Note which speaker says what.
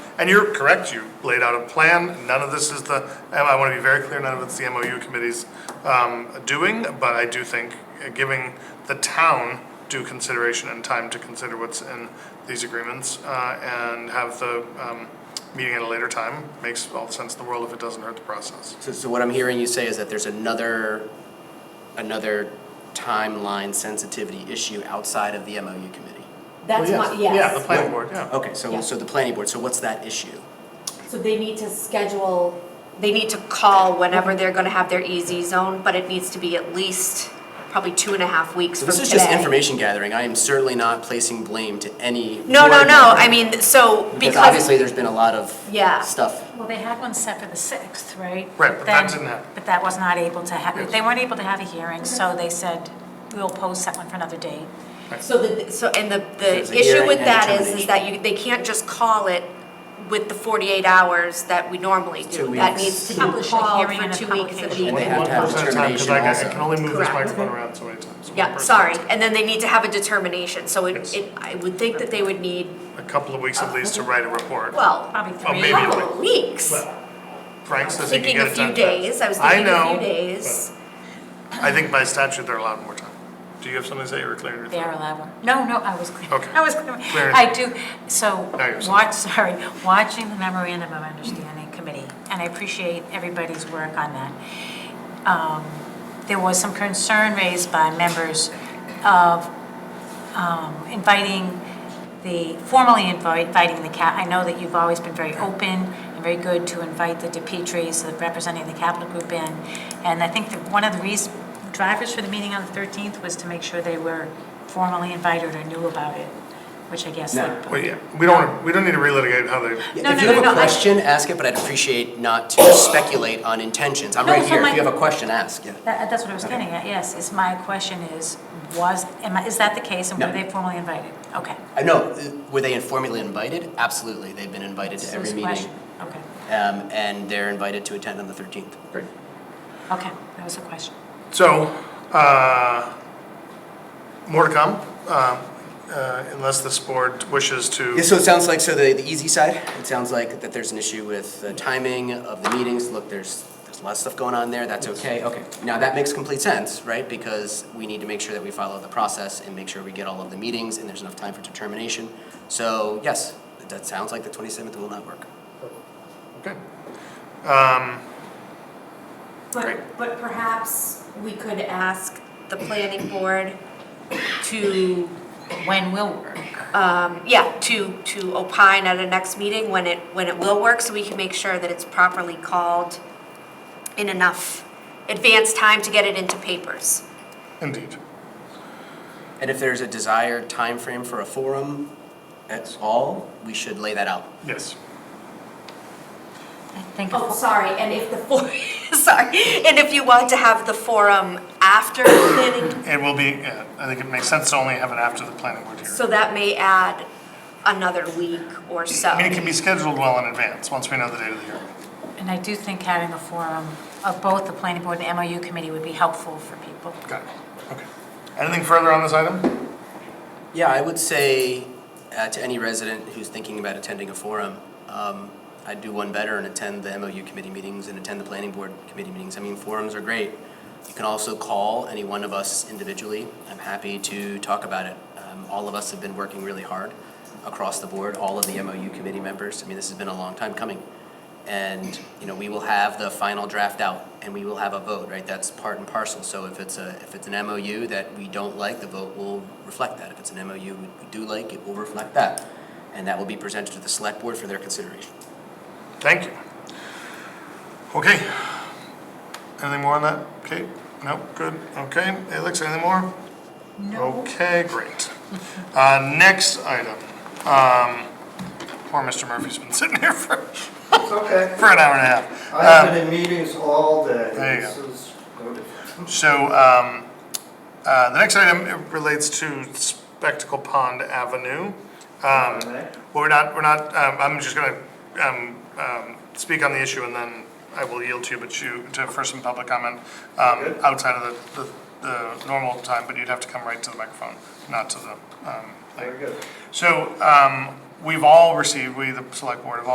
Speaker 1: And you're correct, you laid out a plan, none of this is the, and I want to be very clear, none of it's the MOU committee's um, doing, but I do think uh, giving the town due consideration and time to consider what's in these agreements uh, and have the um, meeting at a later time makes all the sense in the world if it doesn't hurt the process.
Speaker 2: So, so what I'm hearing you say is that there's another, another timeline sensitivity issue outside of the MOU committee?
Speaker 3: That's my, Oh, yes.
Speaker 1: Yeah, the planning board, yeah.
Speaker 2: Okay, so, so the planning board, so what's that issue?
Speaker 3: So they need to schedule, they need to call whenever they're gonna have their EZ zone, but it needs to be at least probably two and a half weeks
Speaker 2: So
Speaker 3: from today.
Speaker 2: this is just information gathering, I am certainly not placing blame to any.
Speaker 3: No, no,
Speaker 2: board
Speaker 3: no,
Speaker 2: member,
Speaker 3: I mean, so because.
Speaker 2: Because obviously, there's been a lot of
Speaker 3: Yeah.
Speaker 2: stuff.
Speaker 4: Well, they had one set for the 6th, right?
Speaker 1: Right, but that
Speaker 4: Then-
Speaker 1: didn't happen.
Speaker 4: But that was not able to happen.
Speaker 1: Yes.
Speaker 4: They weren't able to have a hearing, so they said, we'll post that one for another date.
Speaker 3: So the, so, and the,
Speaker 2: there's
Speaker 3: the
Speaker 2: a hearing
Speaker 3: issue with
Speaker 2: and
Speaker 3: that is, is
Speaker 2: determination.
Speaker 3: that you, they can't just call it with the forty-eight hours that we normally
Speaker 2: Two
Speaker 3: do. That
Speaker 2: weeks.
Speaker 3: needs to be
Speaker 4: Publish a
Speaker 3: called
Speaker 4: hearing
Speaker 3: for
Speaker 4: and a
Speaker 3: two weeks of E
Speaker 4: publication.
Speaker 2: And they
Speaker 3: meeting.
Speaker 2: have to have
Speaker 1: One person at a time, 'cause I-
Speaker 2: determination
Speaker 1: I can only move this
Speaker 3: Correct.
Speaker 1: microphone around so many times. One
Speaker 3: Yeah,
Speaker 1: person
Speaker 3: sorry,
Speaker 1: at a time.
Speaker 3: and then they need to have a determination, so it,
Speaker 1: Yes.
Speaker 3: it, I would think that they would need,
Speaker 1: A couple of weeks at least to write a report.
Speaker 3: well,
Speaker 4: Probably
Speaker 1: Well,
Speaker 4: three.
Speaker 3: a
Speaker 1: Oh, maybe
Speaker 3: couple
Speaker 1: like-
Speaker 3: of weeks.
Speaker 1: Well, Frank says he can
Speaker 3: Thinking a
Speaker 1: get it
Speaker 3: few
Speaker 1: done.
Speaker 3: days,
Speaker 1: fast.
Speaker 3: I was
Speaker 1: I
Speaker 3: thinking a
Speaker 1: know,
Speaker 3: few days.
Speaker 1: but I think by statute, they're allowed more time. Do you have something to say, you were clearing your
Speaker 4: They are
Speaker 1: throat?
Speaker 4: allowed one. No, no, I was clear.
Speaker 1: Okay.
Speaker 4: I was clear.
Speaker 1: Clear.
Speaker 4: I do, so,
Speaker 1: Now you're saying.
Speaker 4: watch, sorry, watching the memorandum of understanding committee, and I appreciate everybody's work on that. Um, There was some concern raised by members of um, inviting the, formally invite- inviting the cap, I know that you've always been very open and very good to invite the DePietris, the representing the capital group in. And I think that one of the reasons, drivers for the meeting on the 13th was to make sure they were formally invited or knew about it, which I guess. they-
Speaker 2: No.
Speaker 1: Well, yeah, we don't, wanna- we don't need to relitigate how they,
Speaker 4: No,
Speaker 2: If
Speaker 4: no,
Speaker 2: you
Speaker 4: no,
Speaker 2: have
Speaker 4: no,
Speaker 2: a
Speaker 4: I-
Speaker 2: question, ask it, but I'd appreciate not to speculate on intentions. I'm
Speaker 4: No,
Speaker 2: right
Speaker 4: so
Speaker 2: here,
Speaker 4: my-
Speaker 2: if you have a question, ask, yeah.
Speaker 4: That, that's what I was getting at, yes, is my question is, was, am I, is that the case, and were
Speaker 2: No.
Speaker 4: they formally invited? Okay.
Speaker 2: I know, uh, were they informally invited? Absolutely, they've been invited to
Speaker 4: So
Speaker 2: every
Speaker 4: it's a
Speaker 2: meeting.
Speaker 4: question. Okay,
Speaker 2: Um, and they're invited to attend on the thirteenth. Great.
Speaker 4: okay, that was a question.
Speaker 1: so, uh, more to come, uh, uh, unless this board wishes to.
Speaker 2: Yeah, so it sounds like, so the, the easy side, it sounds like that there's an issue with the timing of the meetings. Look, there's, there's a lot of stuff going on there, that's okay, okay. Now, that makes complete sense, right? Because we need to make sure that we follow the process and make sure we get all of the meetings and there's enough time for determination. So, yes, that sounds like the twenty-seventh will not work.
Speaker 1: Okay. Um,
Speaker 3: But, but perhaps we could ask the planning board to,
Speaker 4: When will work?
Speaker 3: um, yeah, to, to opine at a next meeting when it, when it will work, so we can make sure that it's properly called in enough advance time to get it into papers.
Speaker 1: Indeed.
Speaker 2: And if there's a desired time frame for a forum at all, we should lay that out.
Speaker 1: Yes.
Speaker 4: I think.
Speaker 3: Oh, sorry, and if the for, sorry, and if you want to have the forum after the planning,
Speaker 1: It will be, yeah, I think it makes sense to only have it after the planning board hearing.
Speaker 3: so that may add another week or so.
Speaker 1: I mean, it can be scheduled well in advance, once we know the date of the hearing.
Speaker 4: And I do think having a forum of both the planning board and MOU committee would be helpful for people.
Speaker 1: Got it, okay. Anything further on this item?
Speaker 2: Yeah, I would say uh, to any resident who's thinking about attending a forum, um, I'd do one better and attend the MOU committee meetings and attend the planning board committee meetings. I mean, forums are great. You can also call any one of us individually. I'm happy to talk about it. Um, All of us have been working really hard across the board, all of the MOU committee members. I mean, this has been a long time coming. And, you know, we will have the final draft out and we will have a vote, right? That's part and parcel. So if it's a, if it's an MOU that we don't like, the vote will reflect that. If it's an MOU we we do like, it will reflect that. And that will be presented to the select board for their consideration.
Speaker 1: Thank you. Okay. Anything more on that, Kate? No, good, okay. Alex, anything more? No. Okay, great. Uh, next item, um, poor Mr. Murphy's been sitting here for,
Speaker 5: It's okay.
Speaker 1: for an hour and a half. Um,
Speaker 5: I've been in meetings all day.
Speaker 1: uh, There you go.
Speaker 5: This is no different.
Speaker 1: So, um, uh, the next item relates to Spectacle Pond Avenue. Um,
Speaker 5: Okay.
Speaker 1: Well, we're not, we're not, um, I'm just gonna, um, um, speak on the issue and then I will yield to you, but you, to, for some public comment, um,
Speaker 5: Okay.
Speaker 1: outside of the, the, the normal time, but you'd have to come right to the microphone, not to the, um,
Speaker 5: Very
Speaker 1: thing.
Speaker 5: good.
Speaker 1: So, um, we've all received, we, the select board, have all